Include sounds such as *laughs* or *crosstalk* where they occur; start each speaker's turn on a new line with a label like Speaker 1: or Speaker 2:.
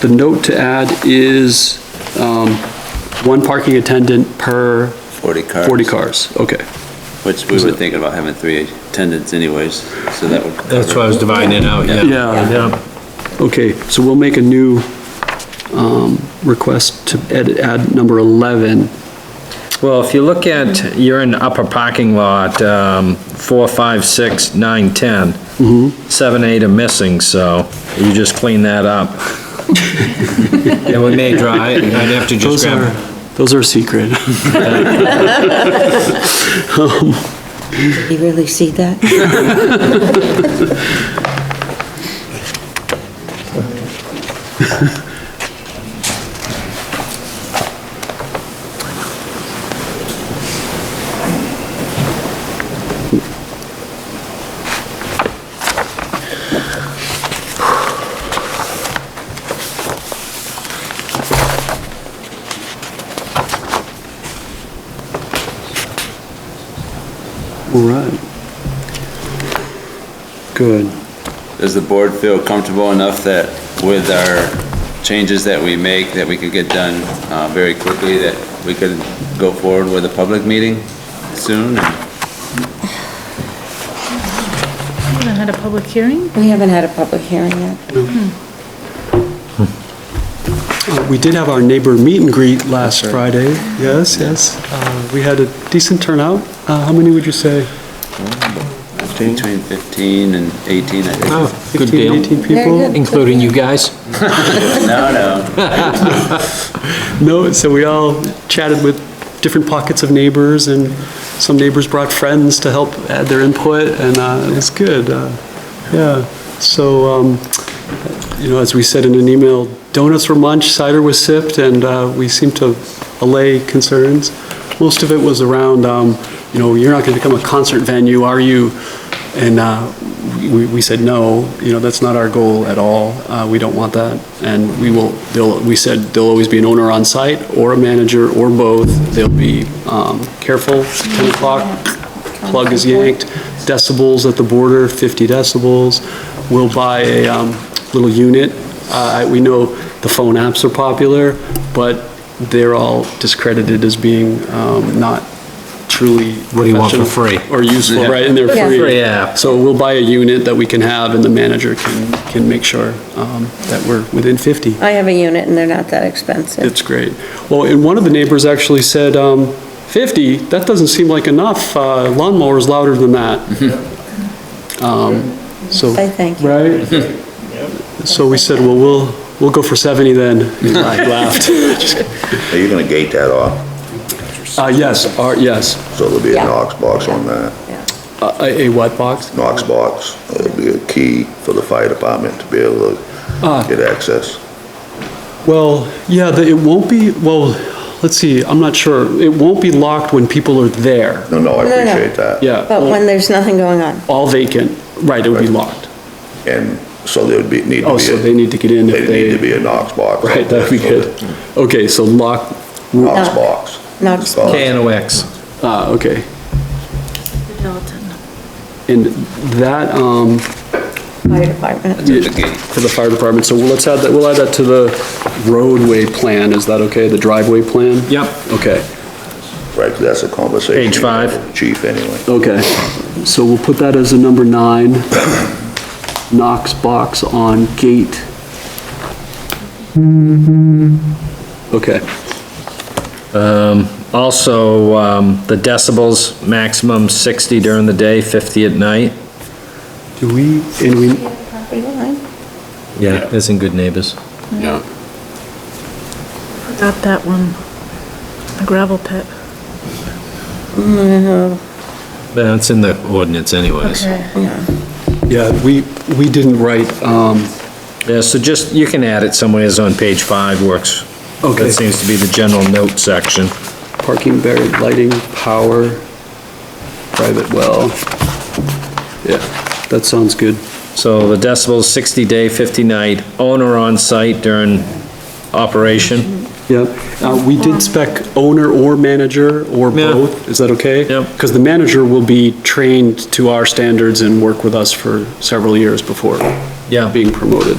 Speaker 1: The note to add is um, one parking attendant per
Speaker 2: 40 cars.
Speaker 1: 40 cars. Okay,
Speaker 2: Which we were thinking about having three attendants anyways, so that would.
Speaker 3: That's why I was dividing it out, yeah.
Speaker 1: Yeah. okay, so we'll make a new um, request to edit, add number 11.
Speaker 3: Well, if you look at, you're in upper parking lot, um, four, five, six, nine, ten.
Speaker 1: Mm-hmm.
Speaker 3: Seven, eight are missing, so you just clean that up. *laughs* Yeah, we may draw, I- I'd have to just
Speaker 1: Those are,
Speaker 3: grab,
Speaker 1: those are secret. *laughs*
Speaker 4: You really see that?
Speaker 1: All right. Good.
Speaker 2: Does the board feel comfortable enough that with our changes that we make, that we could get done uh, very quickly, that we could go forward with a public meeting soon?
Speaker 5: We haven't had a public hearing?
Speaker 4: We haven't had a public hearing yet.
Speaker 1: Uh, We did have our neighbor meet and greet last Friday. Yes, yes. Uh, We had a decent turnout. Uh, How many would you say?
Speaker 2: Between 15 and 18, I think.
Speaker 3: Oh,
Speaker 1: 15,
Speaker 3: good deal.
Speaker 1: 18
Speaker 4: Very
Speaker 1: people?
Speaker 4: good.
Speaker 3: including you guys?
Speaker 2: No, no,
Speaker 1: No, so we all chatted with different pockets of neighbors, and some neighbors brought friends to help add their input, and uh, it was good. uh, Yeah, so, um, you know, as we said in an email, donuts were munched, cider was sipped, and uh, we seemed to allay concerns. Most of it was around, um, you know, you're not going to become a concert venue, are you? And uh, we we said, no, you know, that's not our goal at all. Uh, We don't want that. And we will, they'll, we said, there'll always be an owner on site, or a manager, or both. They'll be um, careful, 10 o'clock, plug is yanked, decibels at the border, 50 decibels. We'll buy a um, little unit. Uh, We know the phone apps are popular, but they're all discredited as being um, not truly
Speaker 3: What do you want for
Speaker 1: professional
Speaker 3: free?
Speaker 1: Or useful, right, and they're
Speaker 4: Yeah.
Speaker 1: free.
Speaker 3: Free app.
Speaker 1: So we'll buy a unit that we can have, and the manager can, can make sure um, that we're within 50.
Speaker 4: I have a unit and they're not that expensive.
Speaker 1: It's great. Well, and one of the neighbors actually said, um, 50, that doesn't seem like enough, Uh, lawnmower's louder than that.
Speaker 3: Mm-hmm.
Speaker 1: Um, So,
Speaker 4: I thank
Speaker 1: *laughs*
Speaker 4: you.
Speaker 1: right? So we said, well, we'll, we'll go for 70 then. And *laughs* I laughed.
Speaker 6: Are you gonna gate that off,
Speaker 1: *laughs* Uh, Yes, our- yes,
Speaker 6: so there'll be a
Speaker 4: Yeah.
Speaker 6: Knox box on that,
Speaker 4: Yeah.
Speaker 1: a a what box?
Speaker 6: Knox box, it'll be a key for the fire department to be able
Speaker 1: Ah.
Speaker 6: to get access.
Speaker 1: Well, yeah, the- it won't be, well, let's see, I'm not sure. It won't be locked when people are there.
Speaker 6: No, no, I
Speaker 4: No, no.
Speaker 6: appreciate that.
Speaker 1: Yeah.
Speaker 4: But when there's nothing going on.
Speaker 1: All vacant, right, it would be locked.
Speaker 6: And so there would be, need to be.
Speaker 1: Oh, so
Speaker 6: a-
Speaker 1: they need to get in if
Speaker 6: There'd
Speaker 1: they.
Speaker 6: need to be a Knox box.
Speaker 1: Right, that'd be good. Okay, so lock,
Speaker 6: Knox
Speaker 4: No.
Speaker 6: box.
Speaker 4: Knox
Speaker 6: It's called.
Speaker 3: KNOX.
Speaker 1: ah, okay.
Speaker 5: Dalton.
Speaker 1: And that, um,
Speaker 4: Fire department.
Speaker 2: it's at the gate.
Speaker 1: for the fire department, so let's add that, we'll add that to the roadway plan, is that okay, the driveway plan?
Speaker 3: Yep,
Speaker 1: Okay,
Speaker 6: Right, 'cause that's a conversation.
Speaker 3: Page
Speaker 6: you have
Speaker 3: five.
Speaker 6: with the Chief, anyway.
Speaker 1: okay. So we'll put that as a number nine, Knox box on gate. Mm-hmm. Okay,
Speaker 3: also, um, the decibels, maximum sixty during the day, fifty at night.
Speaker 1: do we, and we,
Speaker 4: Property line.
Speaker 3: Yeah. Isn't good neighbors.
Speaker 5: Forgot that one. The gravel pit.
Speaker 3: That's in the ordinance anyways.
Speaker 1: yeah, we, we didn't write, um,
Speaker 3: Yeah, so just, you can add it somewhere, it's on page five, works.
Speaker 1: Okay.
Speaker 3: That seems to be the general note section.
Speaker 1: parking, buried, lighting, power, private well. Yeah, that sounds good.
Speaker 3: So the decibels, 60 day, 50 night, owner on site during operation.
Speaker 1: Yep, Uh, we did spec owner or manager or
Speaker 3: Yeah.
Speaker 1: both, is that okay?
Speaker 3: Yep.
Speaker 1: Because the manager will be trained to our standards and work with us for several years before
Speaker 3: Yeah.
Speaker 1: being promoted.